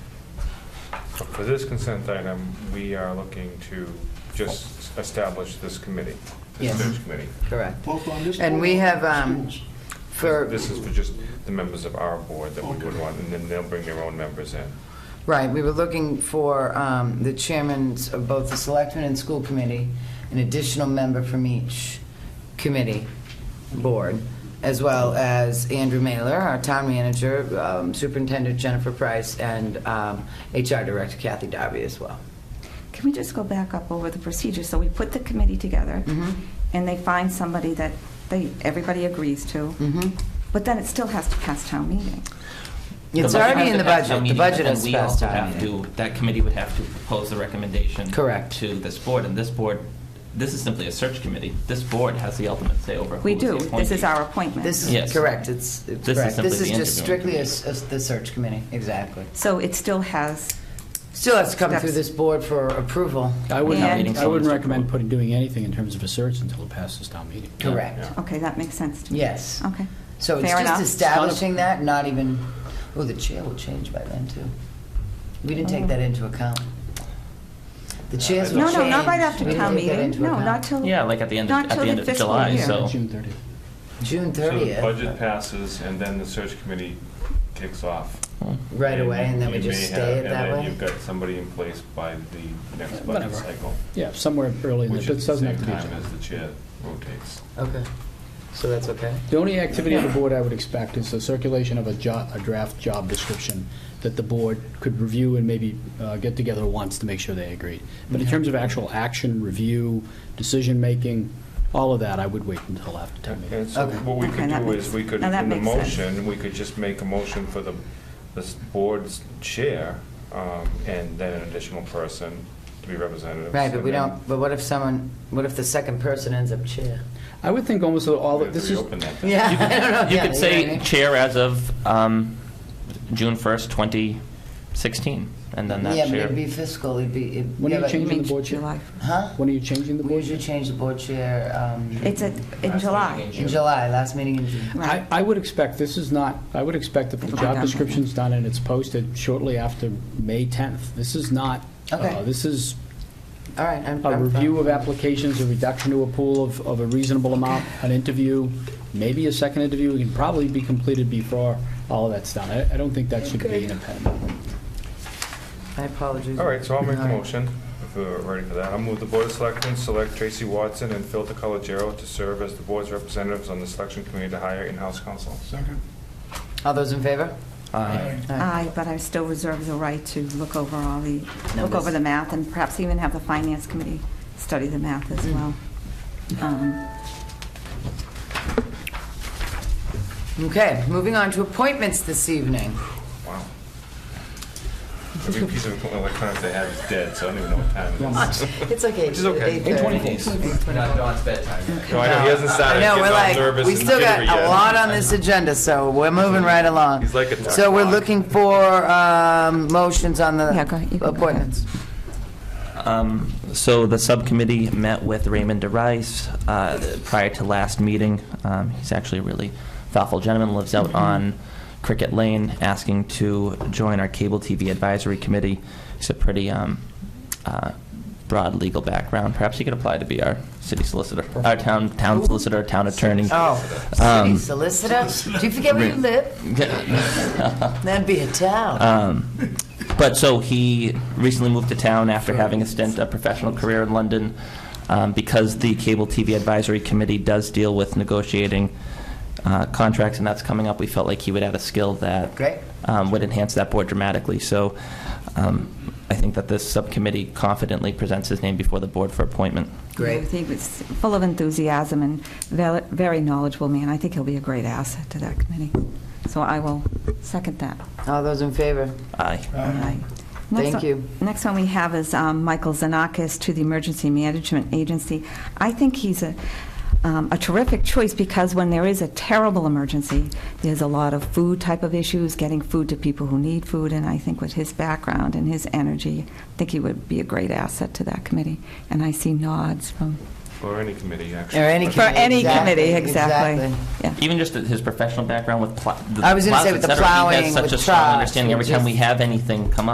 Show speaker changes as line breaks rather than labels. For this consent item, we are looking to just establish this committee, this
Yes.
search committee.
Correct.
Both on this
And
board
we
or
have,
the
um,
schools?
For,
This is for just the members of our board that we would
Okay.
want, and then they'll bring their own members in.
right, we were looking for um, the chairmans of both the selectmen and school committee, an additional member from each committee, board, as well as Andrew Mailer, our town manager, um, superintendent Jennifer Price, and um, HR director Kathy Darby as well.
Can we just go back up over the procedure? So we put the committee together,
Mhm.
and they find somebody that they, everybody agrees to,
Mm-hmm.
Mhm.
but then it still has to pass town meeting.
It's
The budget
already
has
in the
to pass
budget,
town
the
meeting,
budget
and
is
we
passed
also
town
have
meeting.
to- That committee would have to propose the recommendation.
Correct.
To this board, and this board, this is simply a search committee. This board has the ultimate say over who
We
is the
do. This is
appointee.
our appointment.
This is
Yes.
correct, it's, it's
This is
correct.
simply
This is
the
just
interviewing
strictly a
committee.
s- a s- the search committee, exactly.
So it still has,
Still has to come through
Steps.
this board for approval.
I
And-
wouldn't, I wouldn't
Someone's
recommend
approval.
putting, doing anything in terms of a search until it passes town meeting.
Correct.
okay, that makes sense to me.
Yes.
Okay.
So it's
Oh, Fair
just
enough.
establishing that, not even, oh, the chair will change by then, too. We didn't take that into account. The chairs will
Oh. No,
change.
no, not right
We
after
didn't
town
take that
meeting.
into
No,
account.
not till.
Yeah, like at the end of-
not
at the
till
end of
fiscal
July,
year.
so-
June 30th.
June
So the
30th.
budget passes, and then the search committee kicks off.
Right away, and then we
you may
just
have-
stay it that
And then
way?
you've got somebody in place by the next budget
Whatever.
cycle,
Yeah, somewhere early in the,
which
it
is the
doesn't have
same
to be.
time
July.
as the chair rotates.
Okay, so that's okay?
The only activity of the board I would expect is the circulation of a job, a draft job description that the board could review and maybe uh, get together once to make sure they agreed. But in terms of actual action, review, decision-making, all of that, I would wait until after town meeting.
And so
Okay.
what we
Okay,
could
that
do is,
makes-
we could,
now that
in the
makes sense.
motion, we could just make a motion for the, the s- board's chair, um, and then an additional person to be representatives.
Right, but
and
we
then
don't, but what if someone, what if the second person ends up chair?
I would think almost all,
we
the-
have
this
to
is,
reopen that then.
Yeah, I don't know.
You
Oh, Yeah,
could
know what I
say
mean?
chair as of um, June 1st, 2016, and then
Yeah,
that
but it'd
chair.
be fiscal, it'd be, it-
When
yeah,
you
but-
change-
You mean
the board chair?
July.
Huh?
when are you changing the
We
board?
usually change the board chair um,
It's a- in July.
in July, last meeting in June.
I,
Right.
I would expect, this is not, I would expect that the
It'll be
job
done.
description's done and it's posted shortly after May 10th. This is not,
Okay.
uh, this is
All right, I'm.
a
I'm
review
fine.
of applications, a reduction to a pool of, of a reasonable amount, an interview, maybe a second interview, it can probably be completed before all of that's done. I, I don't think that should be an impediment.
I apologize.
All right, so I'll make a
All right.
motion, if we're ready for that. I'll move the Board of Selectmen, select Tracy Watson and Phil DeColiero to serve as the board's representatives on the selection committee to hire in-house counsel.
Second.
All those in favor?
Aye.
All right.
Aye, but I still reserve the right to look over all the, look
Numbers.
over the math and perhaps even have the finance committee study the math as
Mm.
well. Um,
Okay, moving on to appointments this evening.
Wow. Every piece of electronics I have is dead, so I don't even know what time it
Uh,
is.
It's like eight.
Which is okay.
eight thirty.
In 20 days. Not Dawn's bedtime.
No, I know, he hasn't
I
started.
know,
He's
we're
all
like,
nervous
we
and
still got
jittery yet.
a lot on this agenda, so we're moving right along.
He's like a duck
So we're
clock.
looking for um, motions on the
Yeah, go ahead, you can go ahead.
appointments.
Um, So the subcommittee met with Raymond DeRice uh, prior to last meeting. Um, He's actually a really thoughtful gentleman, lives out on Cricket Lane, asking to join our Cable TV Advisory Committee. He's a pretty um, uh, broad legal background. Perhaps he could apply to be our city solicitor, our town town solicitor, town attorney.
Oh, city
Um,
solicitor? Do you forget where you live? That'd be a town.
Um, but so he recently moved to town after having a stint, a professional career in London, um, because the Cable TV Advisory Committee does deal with negotiating uh, contracts, and that's coming up. We felt like he would add a skill that
Great.
um, would enhance that board dramatically. So um, I think that this subcommittee confidently presents his name before the board for appointment.
I
Great.
think it's full of enthusiasm and val- very knowledgeable man. I think he'll be a great asset to that committee. So I will second that.
All those in favor?
Aye.
Aye.
Thank
Next one-
you.
Next one we have is um, Michael Zanakis to the Emergency Management Agency. I think he's a um, a terrific choice because when there is a terrible emergency, there's a lot of food type of issues, getting food to people who need food, and I think with his background and his energy, I think he would be a great asset to that committee. And I see nods from,
Or any committee, actually.
Or any
for any
exactly,
committee, exactly. Yeah.
Even just his professional background with pl- the
I was gonna say
plows,
with the
et cetera,
plowing,
he has such
with
a strong
trucks,
understanding.
with
Every time
just-
we have anything come up.